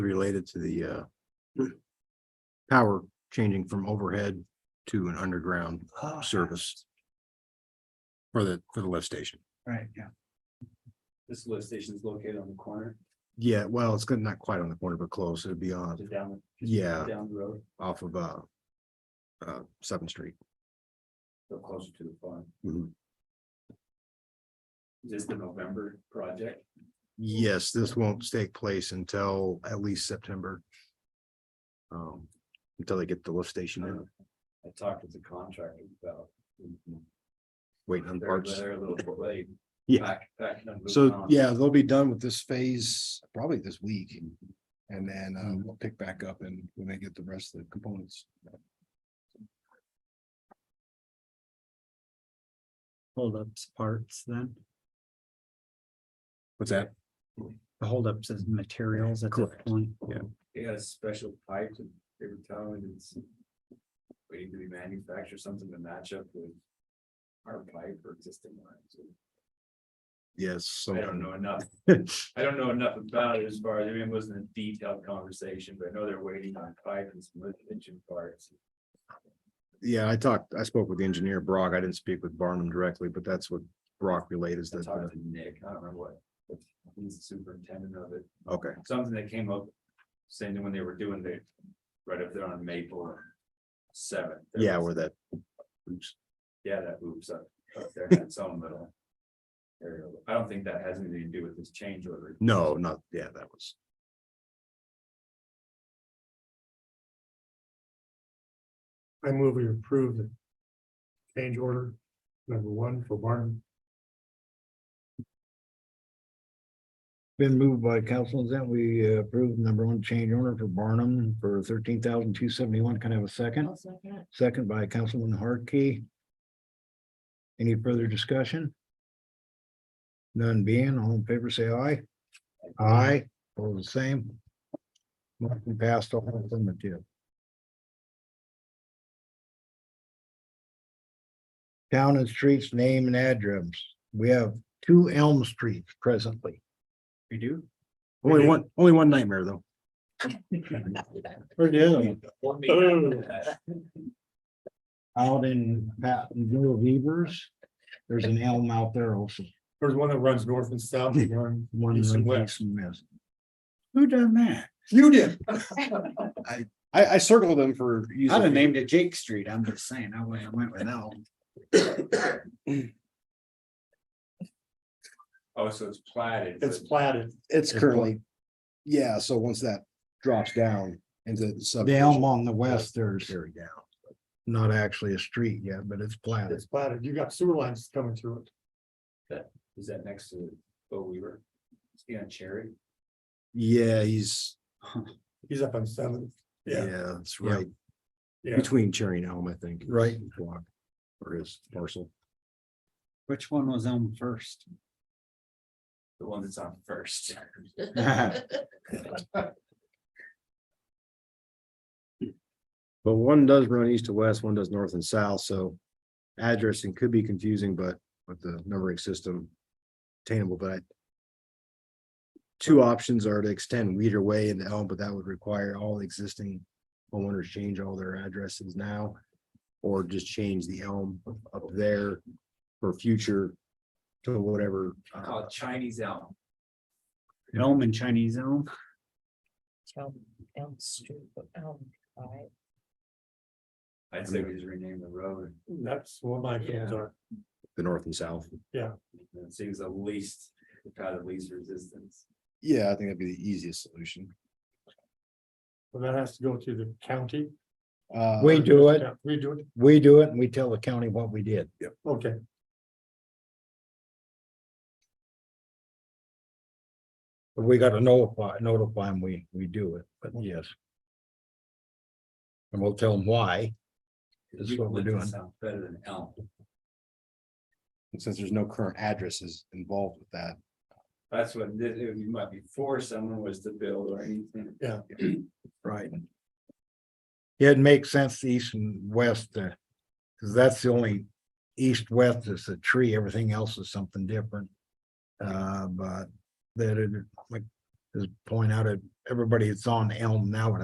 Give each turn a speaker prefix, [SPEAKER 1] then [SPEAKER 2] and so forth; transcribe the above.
[SPEAKER 1] related to the uh. Power changing from overhead to an underground
[SPEAKER 2] Oh,
[SPEAKER 1] service. For the, for the lift station.
[SPEAKER 2] Right, yeah.
[SPEAKER 3] This lift station is located on the corner,
[SPEAKER 1] Yeah, well, it's gonna- not quite on the corner, but close. It'd be on,
[SPEAKER 3] just down,
[SPEAKER 1] yeah,
[SPEAKER 3] down the road,
[SPEAKER 1] off of uh. Uh, Seventh Street.
[SPEAKER 3] so closer to the farm.
[SPEAKER 1] Mhm.
[SPEAKER 3] Is this the November project?
[SPEAKER 1] Yes, this won't take place until at least September. Um, until they get the lift station in,
[SPEAKER 3] I talked with the contractor about.
[SPEAKER 1] waiting on
[SPEAKER 3] They're
[SPEAKER 1] parts.
[SPEAKER 3] they're a little bit late.
[SPEAKER 1] Yeah.
[SPEAKER 3] Back- back on the
[SPEAKER 1] So,
[SPEAKER 3] con-
[SPEAKER 1] yeah, they'll be done with this phase probably this week. And then uh,
[SPEAKER 3] Mm-hmm.
[SPEAKER 1] we'll pick back up and when they get the rest of the components.
[SPEAKER 2] Holdups parts then,
[SPEAKER 1] What's that?
[SPEAKER 2] the holdups is materials at that
[SPEAKER 1] Correct.
[SPEAKER 2] point.
[SPEAKER 3] They got a special pipe that they were telling me it's. Waiting to be manufactured, something to match up with. Our pipe or existing lines.
[SPEAKER 1] Yes.
[SPEAKER 3] I
[SPEAKER 1] so-
[SPEAKER 3] don't know enough. I don't know enough about it as far as, I mean, it wasn't a detailed conversation, but I know they're waiting on pipe and some lift engine parts.
[SPEAKER 1] Yeah, I talked, I spoke with the engineer Brock. I didn't speak with Barnum directly, but that's what Brock relayed is
[SPEAKER 3] I
[SPEAKER 1] that,
[SPEAKER 3] talked to Nick, I don't remember what, what he's the superintendent of it,
[SPEAKER 1] uh, okay,
[SPEAKER 3] something that came up. Saying that when they were doing the, right up there on Maple and Seventh. there
[SPEAKER 1] yeah,
[SPEAKER 3] was-
[SPEAKER 1] where that. oops,
[SPEAKER 3] Yeah, that oops up, up there, had its own little. area. I don't think that has anything to do with this change order.
[SPEAKER 1] No, not, yeah, that was.
[SPEAKER 4] I move we approve the change order number one for Barton.
[SPEAKER 5] Been moved by Councilman Zent, we uh, approve number one change order for Barnum for thirteen thousand two seventy-one. Can I have a second? Second by Councilman Harkey. Any further discussion? None being, all in favor, say aye. Aye, all the same. Motion passed all affirmative. Town and streets name and address. We have two Elm Streets presently.
[SPEAKER 2] We do?
[SPEAKER 1] Only one, only one nightmare though.
[SPEAKER 5] Where's the other
[SPEAKER 3] Or me.
[SPEAKER 4] Oh.
[SPEAKER 5] Out in Pattonville Beavers, there's an elm out there also.
[SPEAKER 4] There's one that runs north and south. and one-
[SPEAKER 5] One
[SPEAKER 4] East and
[SPEAKER 5] that's
[SPEAKER 4] west.
[SPEAKER 5] missed.
[SPEAKER 2] Who done that?
[SPEAKER 4] You did.
[SPEAKER 1] I, I circled them for. user
[SPEAKER 2] I'd have named it Jake Street, I'm just saying, I wouldn't have went with Elm.
[SPEAKER 3] Oh, so it's platted.
[SPEAKER 4] It's
[SPEAKER 3] but-
[SPEAKER 4] platted.
[SPEAKER 1] It's currently, yeah, so once that drops down into the sub.
[SPEAKER 5] The elm on the west, there's
[SPEAKER 1] Very down.
[SPEAKER 5] not actually a street yet, but it's platted.
[SPEAKER 4] It's platted. You got sewer lines coming through it.
[SPEAKER 3] Is that next to Bo Weaver? Is he on Cherry?
[SPEAKER 1] Yeah, he's,
[SPEAKER 4] He's up on seven. Yeah.
[SPEAKER 1] yeah, that's right,
[SPEAKER 4] Yeah.
[SPEAKER 1] between Cherry and Elm, I think.
[SPEAKER 5] Right.
[SPEAKER 1] Block Or his parcel.
[SPEAKER 2] Which one was Elm first?
[SPEAKER 3] The one that's on first.
[SPEAKER 1] But one does run east to west, one does north and south, so addressing could be confusing, but with the numbering system attainable, but I- two options are to extend Weeder Way into Elm, but that would require all existing homeowners change all their addresses now, or just change the Elm up there for future to whatever. uh,
[SPEAKER 3] I call it Chinese elm.
[SPEAKER 2] Elm and Chinese Elm?
[SPEAKER 6] Elm, Elm Street, but Elm, right?
[SPEAKER 3] I'd say we just rename the road.
[SPEAKER 4] That's what my feelings are.
[SPEAKER 1] The north and south.
[SPEAKER 3] It seems the least, the path of least resistance.
[SPEAKER 1] Yeah, I think that'd be the easiest solution.
[SPEAKER 4] Well, that has to go to the county.
[SPEAKER 1] Uh,
[SPEAKER 5] We do it,
[SPEAKER 4] Yeah, We do it.
[SPEAKER 5] we do it, and we tell the county what we did.
[SPEAKER 4] Okay.
[SPEAKER 5] But we gotta notify, notify them we, we do it, but yes. And we'll tell them why. This is what we're
[SPEAKER 3] Eucalyptus
[SPEAKER 5] doing.
[SPEAKER 3] sounds Better than elm.
[SPEAKER 1] Since there's no current addresses involved with that.
[SPEAKER 3] That's what, this- it might be for someone was to build or anything.
[SPEAKER 5] Right. It makes sense east and west, uh, cause that's the only east-west is a tree, everything else is something different. Uh, but that it, like, is point out at everybody that's on Elm now would